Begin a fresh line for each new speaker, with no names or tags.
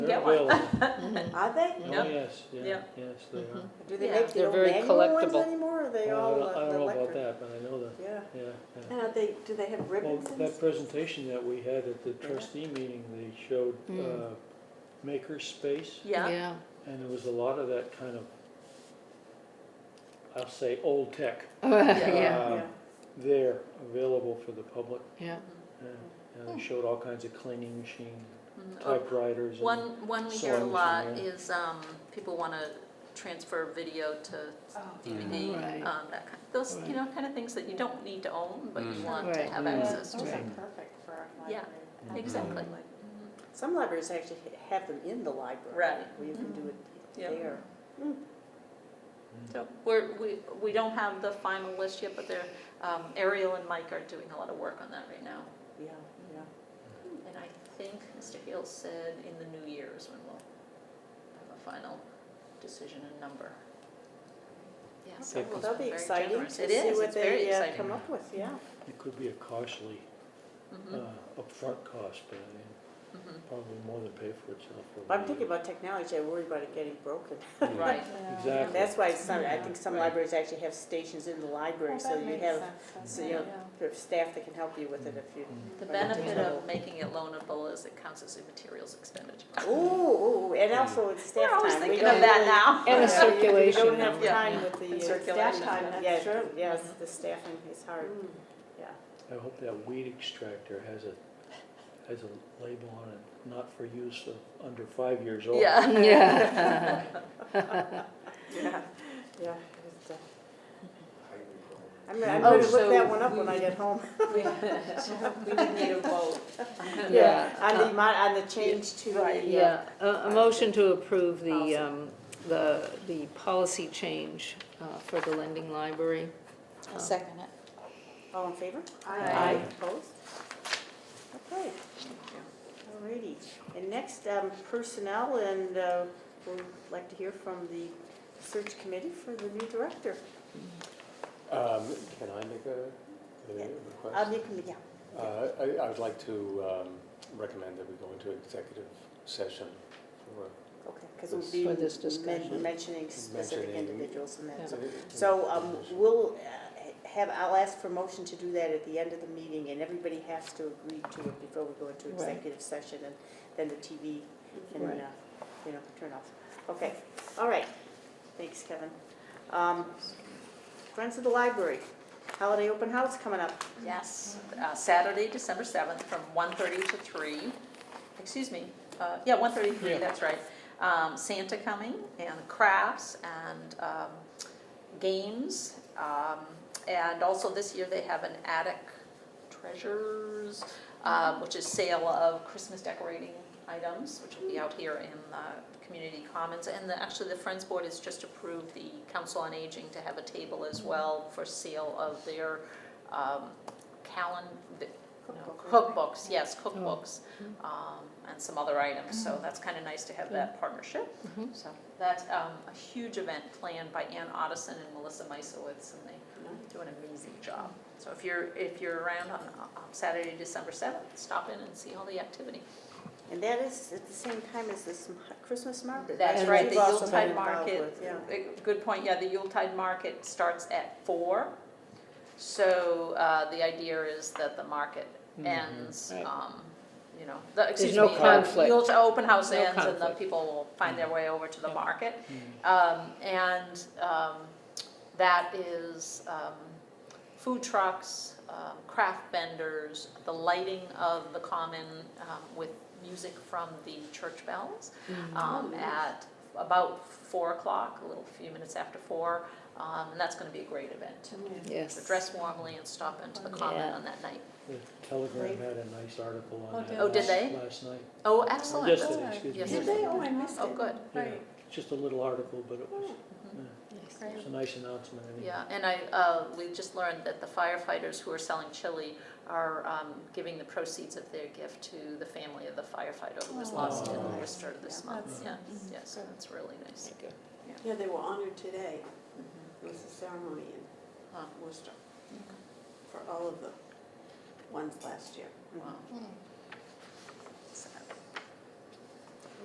Get
They're
one.
available.
Are they?
Oh,
Yep.
yes, yeah,
Yep.
yes, they are.
Do they
Yeah.
make the
They're
old
very
manual ones
collectible.
anymore, or are
Well, I
they all
don't- I
uh,
don't know about
electric?
that, but I know that,
Yeah.
yeah, yeah.
And are they, do they have
Well,
ribbons and
that
stuff?
presentation that we had at the trustee meeting, they showed
Mm.
uh, maker space,
Yeah,
and there was a lot of that kind of, I'll say, old tech
Yeah,
uh,
Yeah.
there, available for the public.
yeah.
Mm-hmm.
Yeah, And they showed all kinds of cleaning machine,
Mhm. Or
typewriters. and-
One, one we hear a
sewing machine,
lot
yeah.
is, um, people wanna transfer video to
Mm-hmm.
DVD,
Right.
um, that kind, those, you
Right.
know, kinda things that you don't need to own, but you
Mm. Mm-hmm.
want to
Right.
have
Yeah,
access
those
to.
are
Mhm.
Right.
perfect for a
Yeah,
Mhm.
Exactly. Mm-hmm.
Some libraries actually ha- have them in the library.
Right.
Where you can do it
Yeah.
there.
So we're, we, we don't have the final list yet, but they're, um, Ariel and Mike are doing a lot of work on that right now.
Yeah, yeah.
And I think Mr. Hill said in the new year is when we'll have a final decision and number. Yeah, so
Okay.
we'll
Well, that'll be
very
exciting to
generous. It
see
is,
what
it's very
they uh,
exciting.
come up with, yeah.
It could be a costly uh,
Mhm,
upfront cost, but I mean,
mhm.
probably more than pay for itself. over
I'm
the
thinking
years.
about technology, I worry about it getting broken.
Yeah.
Right,
Exactly.
That's why some, I think some
Right.
libraries actually have stations in the library, so you have so you have sort of staff that can help you with it if you.
Mm.
the
Right.
benefit of making it loanable is it counts as a materials expenditure.
Ooh, ooh, and also it's staff
We're
time.
always
We
thinking
don't
of that
really-
now.
And a
Yeah, you-
circulation
You don't have
number.
time with the.
And
uh,
circulation.
staff time,
That's
Yeah, true, yes, the staffing is hard, yeah.
I hope that weed extractor has a, has a label on it, not for use of under five years old.
Yeah.
Yeah.
Yeah, yeah. it's, uh, I'm gonna,
Oh,
I'm gonna look that one up when I get home.
We would need a vote.
Yeah.
On the, mon- on the change to the, uh,
Yeah, a, a motion to approve the, um, the, the policy change uh, for the lending library.
I'll second it.
uh, all in favor?
Aye.
Opposed? Okay. Alrighty, and next, um, personnel, and, uh, we'd like to hear from the search committee for the new director.
Um, Can I make a a
Yeah. Um,
request?
you can, yeah,
Uh, I I would like to um, recommend that we go into executive session for
okay, because we'll
This-
be
For this
men-
discussion.
mentioning specific
Mentioning-
individuals and that.
Yeah.
So, um, we'll uh, have, I'll ask for motion to do that at the end of the meeting, and everybody has to agree to it before we go into
Right.
executive session, and then the TV can,
Right.
uh, you know, turn off. Okay, all right, thanks, Kevin. Um, Friends of the Library, holiday open house coming up.
Yes, uh, Saturday, December 7th, from 1:30 to 3. Excuse me, uh, yeah, 1:30 to 3,
Yeah.
that's right. Um, Santa coming, and crafts, and um, games. um, And also this year, they have an attic treasures, um, which is sale of Christmas decorating items, which will be out here in the community commons. And the- actually, the Friends Board has just approved the Council on Aging to have a table as well for sale of their um, calen, the- no, cookbooks, yes, cookbooks, um, and some other items, so that's kind of nice to have that partnership.
Mhm.
So that's um, a huge event planned by Ann Otteson and Melissa Meisowitz, and they do an amazing job. So if you're, if you're around on um, Saturday, December seventh, stop in and see all the activity.
And that is at the same time as this m- Christmas market.
That's
which
right,
you've
the
also
Yuletide
been involved
market,
with, Yeah.
uh, good point, yeah, the Yuletide market starts at four. So uh, the idea is that the market
Mhm.
ends,
Mm-hmm. Right.
um, you know, the, excuse me.
no
the
conflict.
Yuletide open house
No
ends and the
conflict. Mm-hmm.
people will find their way over to the
Yeah.
market.
Mm.
Um, and, um, that is, um, food trucks, um, craft vendors, the lighting of the common, um, with music from the church bells,
Mm-hmm.
um, at about four o'clock, a little few minutes after four, um, and that's gonna be a great event. So
Yes.
dress warmly and stop into the common
Yeah.
on that night.
The Telegram had a nice article
Oh,
on that.
did Oh,
did
last-
they?
Last night.
Oh, excellent,
Yes,
That's-
it- excuse me.
Yes,
yes,
it
it- Oh.
is.
I missed
oh, good, Mm-hmm.
yeah. Just a little article, but it was, yeah, it's a nice announcement. I mean.
Yeah, and I, uh, we just learned that the firefighters who are selling chili are, um, giving the proceeds of their gift to the family of the firefighter who was lost in
Aw.
Worcester this
Yeah,
month, yeah,
that's nice.
yeah, so that's really nice.
Yeah, they were honored today. It was a ceremony
Huh. Mm-hmm.
in Worcester for all of the ones last year.
Wow.
Mm.